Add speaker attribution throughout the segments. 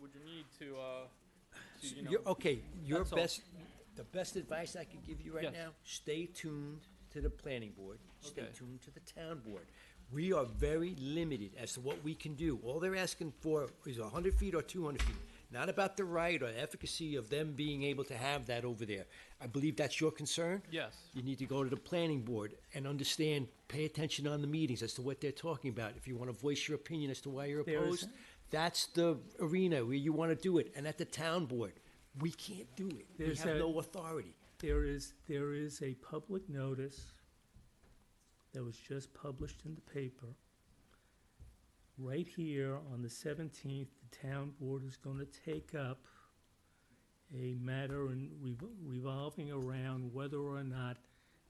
Speaker 1: would you need to, uh, to, you know?
Speaker 2: You're- okay, your
Speaker 1: That's all.
Speaker 2: best, the best advice I could give you right
Speaker 1: Yes.
Speaker 2: now, stay tuned to the planning board, stay
Speaker 1: Okay.
Speaker 2: tuned to the town board. We are very limited as to what we can do. All they're asking for is hundred feet or two hundred feet. Not about the right or efficacy of them being able to have that over there. I believe that's your concern?
Speaker 1: Yes.
Speaker 2: You need to go to the planning board and understand, pay attention on the meetings as to what they're talking about. If you want to voice your opinion as to why you're
Speaker 3: There is-
Speaker 2: opposed, that's the arena where you want to do it. And at the town board, we can't do it. We
Speaker 3: There's
Speaker 2: have
Speaker 3: a-
Speaker 2: no authority.
Speaker 3: There is, there is a public notice that was just published in the paper. Right here on the seventeenth, the town board is gonna take up a matter in revo- revolving around whether or not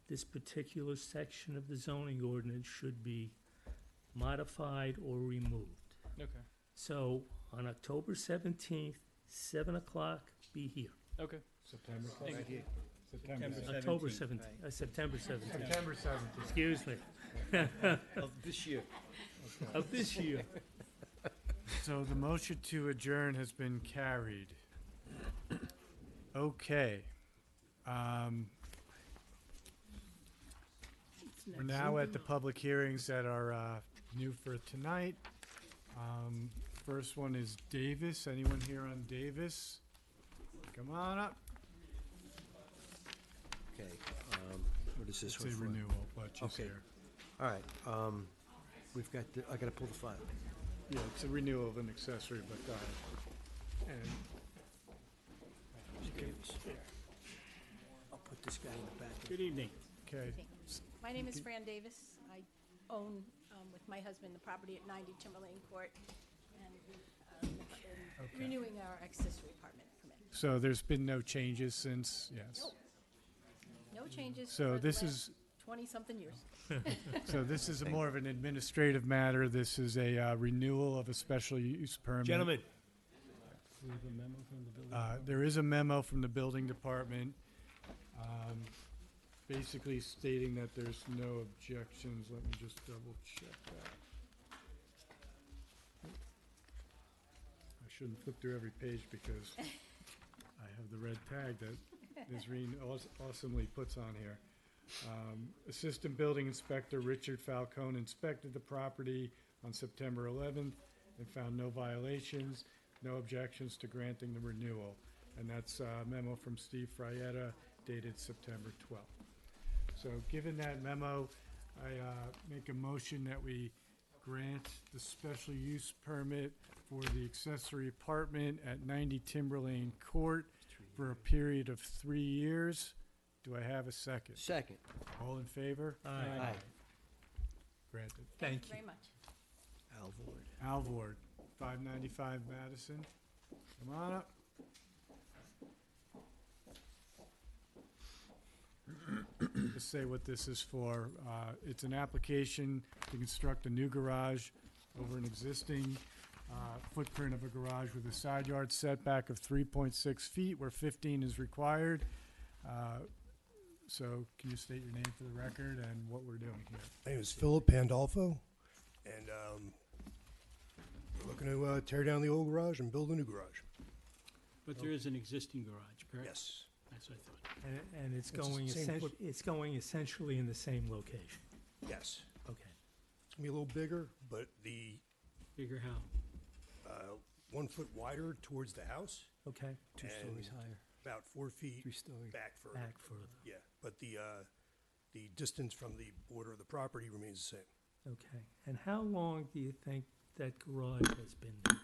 Speaker 3: this particular section of the zoning ordinance should be modified or removed.
Speaker 1: Okay,
Speaker 3: So on October seventeenth, seven o'clock, be here.
Speaker 1: okay.
Speaker 4: September,
Speaker 1: Thank you.
Speaker 4: September
Speaker 3: October seventeenth, uh, September seventeenth.
Speaker 4: September seventeenth.
Speaker 3: Excuse me,
Speaker 2: Of this year.
Speaker 3: of this year.
Speaker 4: So the motion to adjourn has been carried. Okay. Um, We're now at the public hearings that are uh, new for tonight. Um, First one is Davis. Anyone here on Davis? Come on up.
Speaker 2: Okay, um, what is this
Speaker 4: It's
Speaker 2: one
Speaker 4: a
Speaker 2: for?
Speaker 4: renewal, but she's
Speaker 2: Okay.
Speaker 4: here.
Speaker 2: All right, um, we've got, the- I gotta pull the file.
Speaker 4: Yeah, it's a renewal of an accessory, but, uh, and
Speaker 2: I'll put this guy in the back.
Speaker 3: Good evening.
Speaker 4: Okay,
Speaker 5: My name is Fran Davis. I own, um, with my husband, the property at 90 Timberlane Court, and we, um, are
Speaker 4: Okay.
Speaker 5: renewing our accessory apartment permit.
Speaker 4: so there's been no changes since, yes.
Speaker 5: No changes.
Speaker 4: Mm. So
Speaker 5: for the
Speaker 4: this
Speaker 5: last
Speaker 4: is,
Speaker 5: 20-something years.
Speaker 4: so this is a more of an administrative matter. This is a uh, renewal of a special use permit.
Speaker 2: Gentlemen,
Speaker 4: Uh, There is a memo from the building department, um, basically stating that there's no objections. Let me just double check that. I shouldn't flip through every page because I have the red tag that Ms. Reen aws- awesomely puts on here. Um, Assistant Building Inspector Richard Falcone inspected the property on September 11th and found no violations, no objections to granting the renewal. And that's a memo from Steve Frietta dated September 12th. So given that memo, I uh, make a motion that we grant the special use permit for the accessory apartment at 90 Timberlane Court for a period of three years. Do I have a second?
Speaker 2: second.
Speaker 4: All in favor?
Speaker 3: Aye.
Speaker 4: Granted.
Speaker 3: Thank
Speaker 5: Thank you
Speaker 3: you.
Speaker 5: very much.
Speaker 2: Alvord.
Speaker 4: Alvord, 595 Madison. Come on up. Just say what this is for. Uh, It's an application to construct a new garage over an existing uh, footprint of a garage with a side yard setback of 3.6 feet where 15 is required. Uh, So can you state your name for the record and what we're doing here?
Speaker 6: My name is Philip Pandolfo, and um, we're looking to uh, tear down the old garage and build a new garage.
Speaker 7: But there is an existing garage, correct?
Speaker 6: Yes.
Speaker 7: That's what I thought.
Speaker 3: And, and it's
Speaker 6: It's the
Speaker 3: going
Speaker 6: same
Speaker 3: essentially,
Speaker 6: foot-
Speaker 3: it's going essentially in the same location.
Speaker 6: Yes.
Speaker 3: Okay.
Speaker 6: It's gonna be a little bigger, but the
Speaker 7: Figure how.
Speaker 6: uh, one foot wider towards the house,
Speaker 3: Okay.
Speaker 2: Two stories
Speaker 6: And-
Speaker 2: higher,
Speaker 6: about four feet
Speaker 2: three story.
Speaker 6: back further.
Speaker 3: Back further.
Speaker 6: Yeah, but the, uh, the distance from the border of the property remains the same.
Speaker 3: Okay. And how long do you think that garage has been there?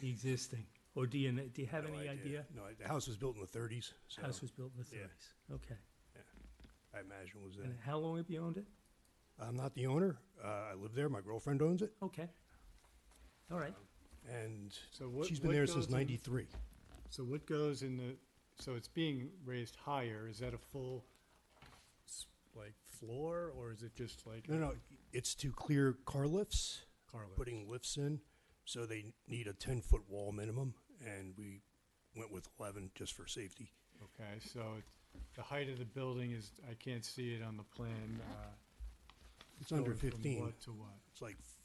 Speaker 3: The Existing? Or do you, kn- do you have
Speaker 6: No
Speaker 3: any idea?
Speaker 6: No, the house was built in the thirties, so
Speaker 3: House was built in the
Speaker 6: Yeah.
Speaker 3: thirties. Okay.
Speaker 6: I imagine it was
Speaker 3: And
Speaker 6: then.
Speaker 3: how long have you owned it?
Speaker 6: I'm not the owner. Uh, I live there. My girlfriend owns it,
Speaker 3: Okay. All right.
Speaker 6: and
Speaker 4: So what-
Speaker 6: she's been
Speaker 4: what
Speaker 6: there
Speaker 4: goes
Speaker 6: since
Speaker 4: in-
Speaker 6: ninety-three.
Speaker 4: So what goes in the, so it's being raised higher, is that a full, s- like, floor, or is it just like
Speaker 6: No, no, it's to clear car lifts.
Speaker 4: car lift?
Speaker 6: putting lifts in, so they need a ten foot wall minimum, and we went with eleven just for safety.
Speaker 4: Okay, so it- the height of the building is, I can't see it on the plan, uh.
Speaker 6: It's under
Speaker 4: going from
Speaker 6: fifteen,
Speaker 4: what to what?
Speaker 6: it's like